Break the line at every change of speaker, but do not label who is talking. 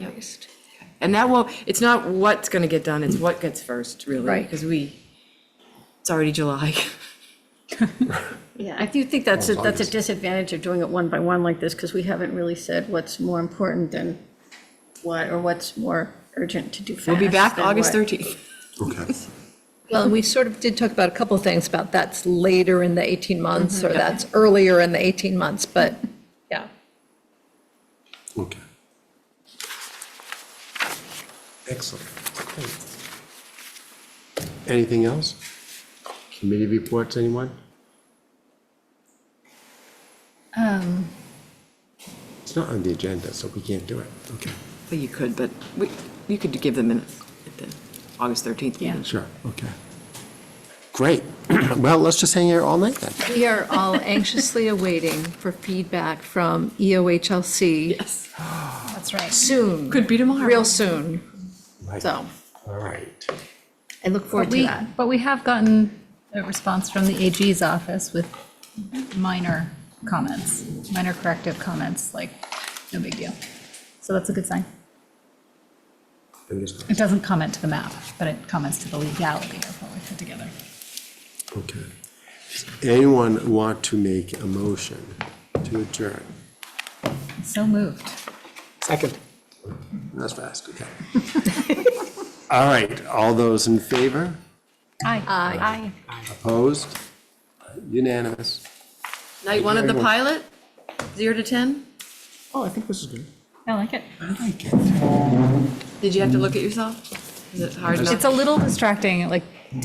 first. And that will, it's not what's gonna get done, it's what gets first, really.
Right.
Because we, it's already July.
Yeah, I do think that's, a that's a disadvantage of doing it one by one like this, because we haven't really said what's more important than what, or what's more urgent to do fast.
We'll be back
than
August
what.
13th.
Okay.
Well, and we sort of did talk about a couple of things about that's later in the 18 months,
Mm-hmm.
or that's earlier in the 18 months, but, yeah.
Okay. Excellent. Anything else? Committee reports, anyone? It's not on the agenda, so we can't do it. Okay,
Well, you could, but we, you could give the minutes at the August 13th meeting.
sure, okay. Great. Well, let's just hang here all night then.
We are all anxiously awaiting for feedback from E EOHLC
Yes.
That's right.
soon.
Could be tomorrow.
Real soon,
Right.
so
All right.
I look
But
forward to
we,
that.
but we have gotten a response from the AG's office with minor comments, minor corrective comments, like, no big deal. So that's a good sign.
Fingers crossed.
It doesn't comment to the map, but it comments to the legality of what we put together.
Okay. Anyone want to make a motion to adjourn?
So moved.
Second. That's fast, okay. All right, all those in favor,
Aye. Aye.
opposed, unanimous?
Night one of the pilot, zero to 10?
Oh, I think this is good.
I like it.
I like it.
Did you have to look at yourself? Is it hard enough?
It's a little distracting, like,